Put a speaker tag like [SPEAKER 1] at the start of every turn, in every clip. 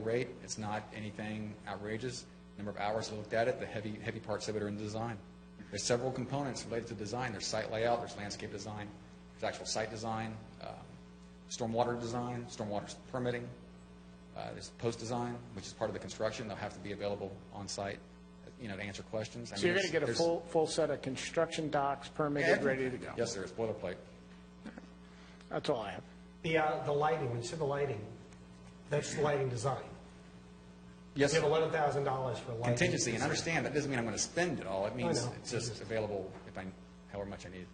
[SPEAKER 1] rate. It's not anything outrageous. Number of hours we looked at it, the heavy, heavy parts of it are in design. There's several components related to design. There's site layout, there's landscape design, there's actual site design, um, stormwater design, stormwater permitting, uh, there's post-design, which is part of the construction. They'll have to be available on-site, you know, to answer questions. I
[SPEAKER 2] So
[SPEAKER 1] mean,
[SPEAKER 2] you're going to
[SPEAKER 1] there's-
[SPEAKER 2] get a
[SPEAKER 1] there's-
[SPEAKER 2] full, full set of construction docs permitted, ready to go?
[SPEAKER 1] Yes, there is boilerplate.
[SPEAKER 2] That's all I have.
[SPEAKER 3] The, uh, the lighting, when you said the lighting, that's the lighting design.
[SPEAKER 1] Yes,
[SPEAKER 3] You
[SPEAKER 1] sir.
[SPEAKER 3] have eleven thousand dollars for lighting.
[SPEAKER 1] contingency, and understand, that doesn't mean I'm going to spend it all. It means
[SPEAKER 3] know.
[SPEAKER 1] it's just available if I, however much I need.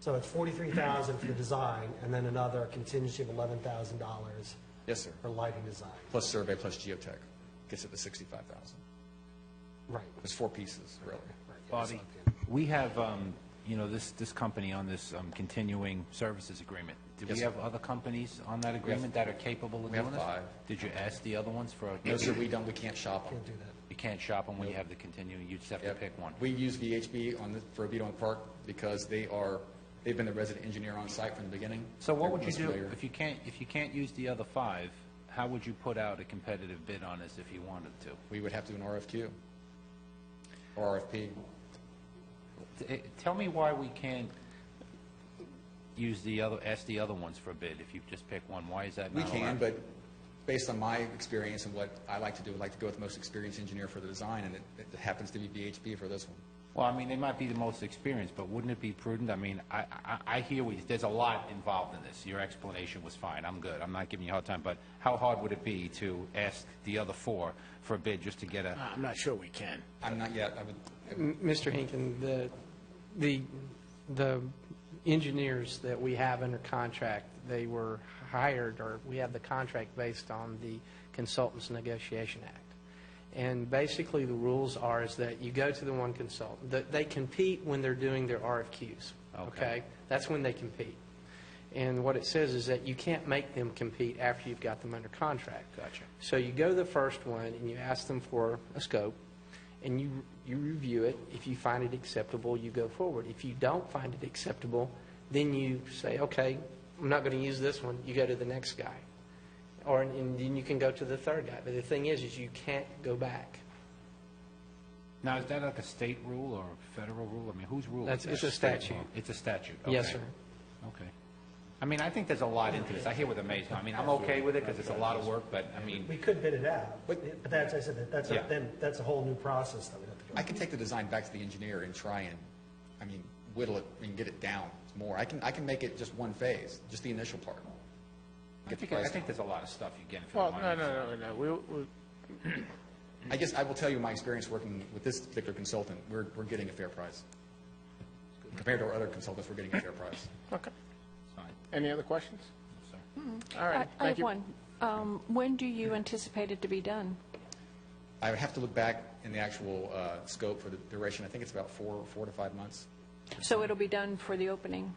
[SPEAKER 3] So it's forty-three thousand for the design, and then another contingency of eleven thousand dollars
[SPEAKER 1] Yes, sir.
[SPEAKER 3] for lighting design.
[SPEAKER 1] Plus survey, plus geotech, gets it to 65,000.
[SPEAKER 3] Right.
[SPEAKER 1] There's four pieces, really.
[SPEAKER 4] Bobby, we have, um, you know, this, this company on this um, continuing services agreement. Do
[SPEAKER 1] Yes,
[SPEAKER 4] we
[SPEAKER 1] sir.
[SPEAKER 4] have other companies on that agreement that are capable of
[SPEAKER 1] we have
[SPEAKER 4] doing this?
[SPEAKER 1] five.
[SPEAKER 4] Did you ask the other ones for, a-
[SPEAKER 1] No, sir, we don't, we can't shop them.
[SPEAKER 3] Can't do that.
[SPEAKER 4] you can't shop them when you have the continuing, you just have to
[SPEAKER 1] Yep.
[SPEAKER 4] pick one?
[SPEAKER 1] We use VHB on the, for Oviedo and Park because they are, they've been the resident engineer on site from the beginning.
[SPEAKER 4] So what
[SPEAKER 1] They're
[SPEAKER 4] would you
[SPEAKER 1] most
[SPEAKER 4] do,
[SPEAKER 1] familiar.
[SPEAKER 4] if you can't, if you can't use the other five, how would you put out a competitive bid on this if you wanted to?
[SPEAKER 1] We would have to do an RFQ or RFP.
[SPEAKER 4] T- eh, Tell me why we can't use the other, ask the other ones for a bid if you just pick one. Why is that
[SPEAKER 1] We
[SPEAKER 4] not allowed?
[SPEAKER 1] can, but based on my experience and what I like to do, I like to go with the most experienced engineer for the design, and it it happens to be VHB for this one.
[SPEAKER 4] Well, I mean, they might be the most experienced, but wouldn't it be prudent? I mean, I, I, I hear what, you- there's a lot involved in this. Your explanation was fine. I'm good. I'm not giving you a hard time, but how hard would it be to ask the other four for a bid just to get a,
[SPEAKER 2] I'm not sure we can.
[SPEAKER 1] I'm not yet, I would,
[SPEAKER 5] Mr. Hinkin, the, the, the engineers that we have under contract, they were hired, or we have the contract based on the Consultants Negotiation Act. And basically, the rules are is that you go to the one consultant, that they compete when they're doing their RFQs,
[SPEAKER 4] Okay.
[SPEAKER 5] okay? That's when they compete. And what it says is that you can't make them compete after you've got them under contract.
[SPEAKER 4] Gotcha.
[SPEAKER 5] So you go to the first one and you ask them for a scope and you, you review it. If you find it acceptable, you go forward. If you don't find it acceptable, then you say, okay, I'm not going to use this one. You go to the next guy. Or, and then you can go to the third guy. But the thing is, is you can't go back.
[SPEAKER 4] now, is that like a state rule or a federal rule? I mean, whose rule is
[SPEAKER 5] That's-
[SPEAKER 4] that?
[SPEAKER 5] it's a
[SPEAKER 4] State
[SPEAKER 5] statute.
[SPEAKER 4] law. It's a statute, okay.
[SPEAKER 5] Yes, sir.
[SPEAKER 4] Okay. I mean, I think there's a lot into this. I hear with amazement. I mean, I'm okay with it because it's a lot of work, but I mean,
[SPEAKER 3] We could bid it out, but that's, I said, that that's,
[SPEAKER 4] Yeah.
[SPEAKER 3] a- then, that's a whole new process that we'd have to go.
[SPEAKER 1] I can take the design back to the engineer and try and, I mean, whittle it and get it down more. I can, I can make it just one phase, just the initial part.
[SPEAKER 4] I
[SPEAKER 1] Get the
[SPEAKER 4] think, I
[SPEAKER 1] price
[SPEAKER 4] think there's a lot of stuff you get for the
[SPEAKER 2] Well,
[SPEAKER 4] money.
[SPEAKER 2] no, no, no, no, we, we-
[SPEAKER 1] I guess I will tell you my experience working with this particular consultant, we're, we're getting a fair price. Compared to our other consultants, we're getting a fair price.
[SPEAKER 2] okay.
[SPEAKER 4] It's fine.
[SPEAKER 2] Any other questions? All
[SPEAKER 6] I
[SPEAKER 2] right,
[SPEAKER 6] I
[SPEAKER 2] thank
[SPEAKER 6] have
[SPEAKER 2] you.
[SPEAKER 6] one. Um, When do you anticipate it to be done?
[SPEAKER 1] I would have to look back in the actual uh, scope for the duration. I think it's about four, four to five months.
[SPEAKER 6] So it'll be done for the opening?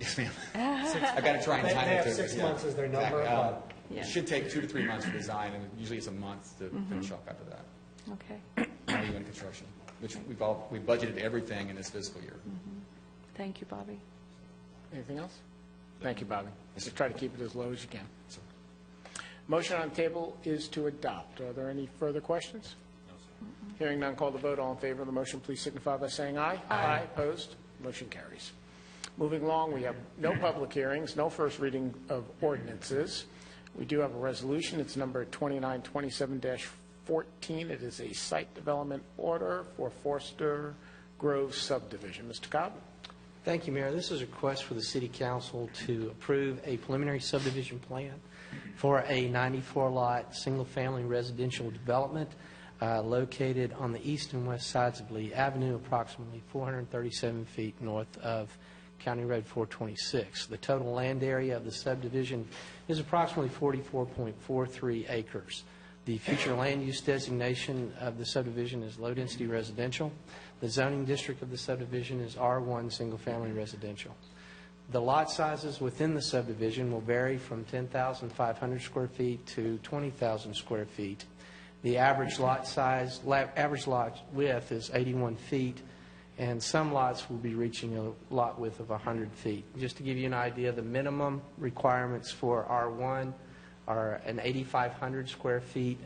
[SPEAKER 1] Yes, ma'am. I've got to try and
[SPEAKER 3] They-
[SPEAKER 1] time
[SPEAKER 3] they
[SPEAKER 1] it.
[SPEAKER 3] have
[SPEAKER 1] to-
[SPEAKER 3] six
[SPEAKER 1] yeah,
[SPEAKER 3] months as their number,
[SPEAKER 1] exactly. Um,
[SPEAKER 6] but-
[SPEAKER 1] It should take two to three months for design, and usually it's a month to finish up after that.
[SPEAKER 6] Okay,
[SPEAKER 1] Now you're in construction, which we've all, we budgeted everything in this fiscal year.
[SPEAKER 6] thank you, Bobby.
[SPEAKER 2] Anything else? Thank you, Bobby. Just try to keep it as low as you can. Motion on the table is to adopt. Are there any further questions? Hearing none, call the vote. All in favor of the motion, please signify by saying aye. Aye. Opposed? Motion carries. Moving along, we have no public hearings, no first reading of ordinances. We do have a resolution. It's number 2927-14. It is a site development order for Forster Grove subdivision. Mr. Cobb?
[SPEAKER 5] Thank you, Mayor. This is a request for the city council to approve a preliminary subdivision plan for a 94-lot, single-family residential development uh, located on the east and west sides of Lee Avenue, approximately 437 feet north of County Road 426. The total land area of the subdivision is approximately 44.43 acres. The future land use designation of the subdivision is low-density residential. The zoning district of the subdivision is R1 Single Family Residential. The lot sizes within the subdivision will vary from 10,500 square feet to 20,000 square feet. The average lot size, la- average lot width is 81 feet, and some lots will be reaching a lot width of 100 feet. Just to give you an idea, the minimum requirements for R1 are are an 8,500 square feet